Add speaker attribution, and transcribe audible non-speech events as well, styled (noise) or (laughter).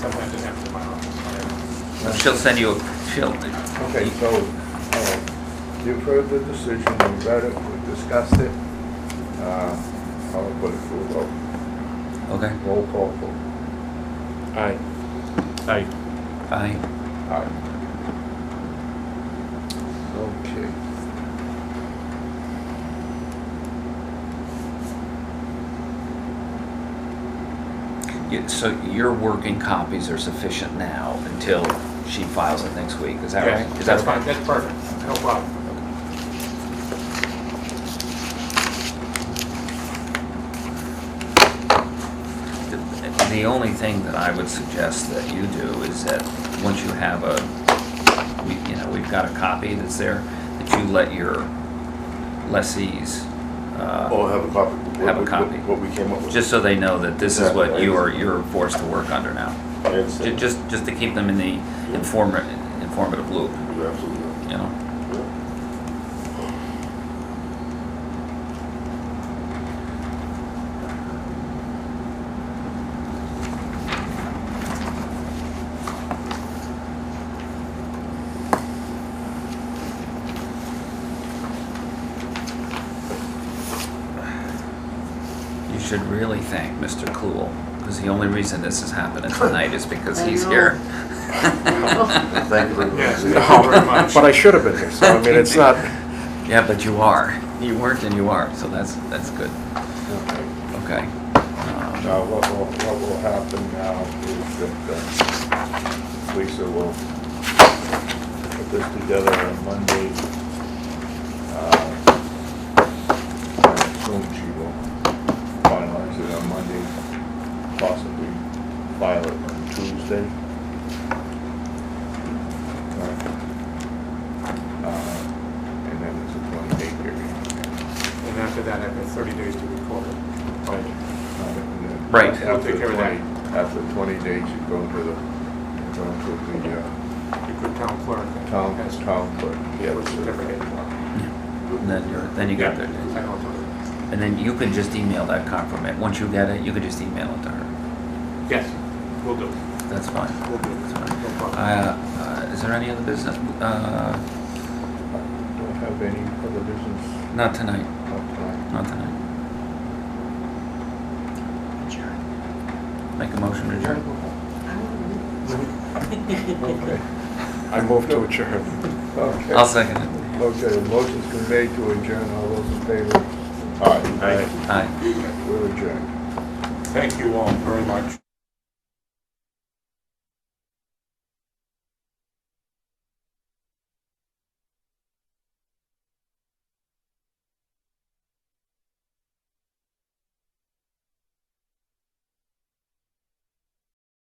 Speaker 1: She'll send you, a- she'll,
Speaker 2: Okay, so, uh, you heard the decision, we read it, we discussed it. Uh, I'll put it through, vote.
Speaker 1: okay,
Speaker 2: roll call vote.
Speaker 3: Aye. Aye.
Speaker 1: aye.
Speaker 2: Aye. Okay.
Speaker 1: You- So your working copies are sufficient now until she files it next week, is that
Speaker 3: Yeah,
Speaker 1: right? Is that
Speaker 3: That's fine, that's perfect, no problem.
Speaker 1: The the only thing that I would suggest that you do is that, once you have a, we, you know, we've got a copy that's there, that you let your lessees,
Speaker 4: Oh,
Speaker 1: uh,
Speaker 4: have a copy. What-
Speaker 1: Have a
Speaker 4: what-
Speaker 1: copy.
Speaker 4: What we came up with.
Speaker 1: just so they know that this is what
Speaker 4: Exactly.
Speaker 1: you are, you're forced to work under now.
Speaker 4: I
Speaker 1: Ju-
Speaker 4: understand.
Speaker 1: Just, just to keep them in the informative, informative loop,
Speaker 4: You're absolutely right.
Speaker 1: you know? (laughs)
Speaker 4: Yeah.
Speaker 1: You should really thank Mr. Kluel, because the only reason this is
Speaker 5: (laughs)
Speaker 1: happening tonight is because
Speaker 5: I
Speaker 1: he's
Speaker 5: know.
Speaker 1: here.
Speaker 4: Thank you very much.
Speaker 3: Yes, thank
Speaker 4: (laughs)
Speaker 3: you
Speaker 1: (laughs)
Speaker 3: very much.
Speaker 6: But I should have been there, so I mean, it's not,
Speaker 1: Yeah, but you are. You weren't and you are, so that's, that's good.
Speaker 2: Okay.
Speaker 1: Okay. Um,
Speaker 2: Now, what will, what will happen now is that uh, Lisa will put this together on Monday. Uh, I assume she will finalize it on Monday, possibly file it on Tuesday. Uh, And then it's a twenty-day period.
Speaker 3: And after that, I've got 30 days to record it.
Speaker 1: Right.
Speaker 3: We'll take care of that.
Speaker 2: After 20 days, you go to the, you go to the uh,
Speaker 3: You could town clerk. I think
Speaker 2: town,
Speaker 3: that's-
Speaker 2: town clerk.
Speaker 3: Yeah, with certificate. I
Speaker 1: And then you're, then you got there.
Speaker 3: know it's on
Speaker 1: And then you can just email that compliment. Once you get it, you can just email it to her.
Speaker 3: there. Yes, will do,
Speaker 1: That's fine.
Speaker 3: will do.
Speaker 1: That's fine.
Speaker 3: No problem.
Speaker 1: Uh, uh, is there any other business? Uh,
Speaker 2: Don't have any other business
Speaker 1: not tonight,
Speaker 2: outside.
Speaker 1: not tonight. Make a motion to adjourn.
Speaker 2: Okay.
Speaker 6: I moved to adjourn.
Speaker 2: Okay.
Speaker 1: I'll second it.
Speaker 2: Okay, motion's been made to adjourn, all those in favor? Aye.
Speaker 3: Aye.
Speaker 1: Aye.
Speaker 2: We're adjourned.
Speaker 3: Thank you all very much.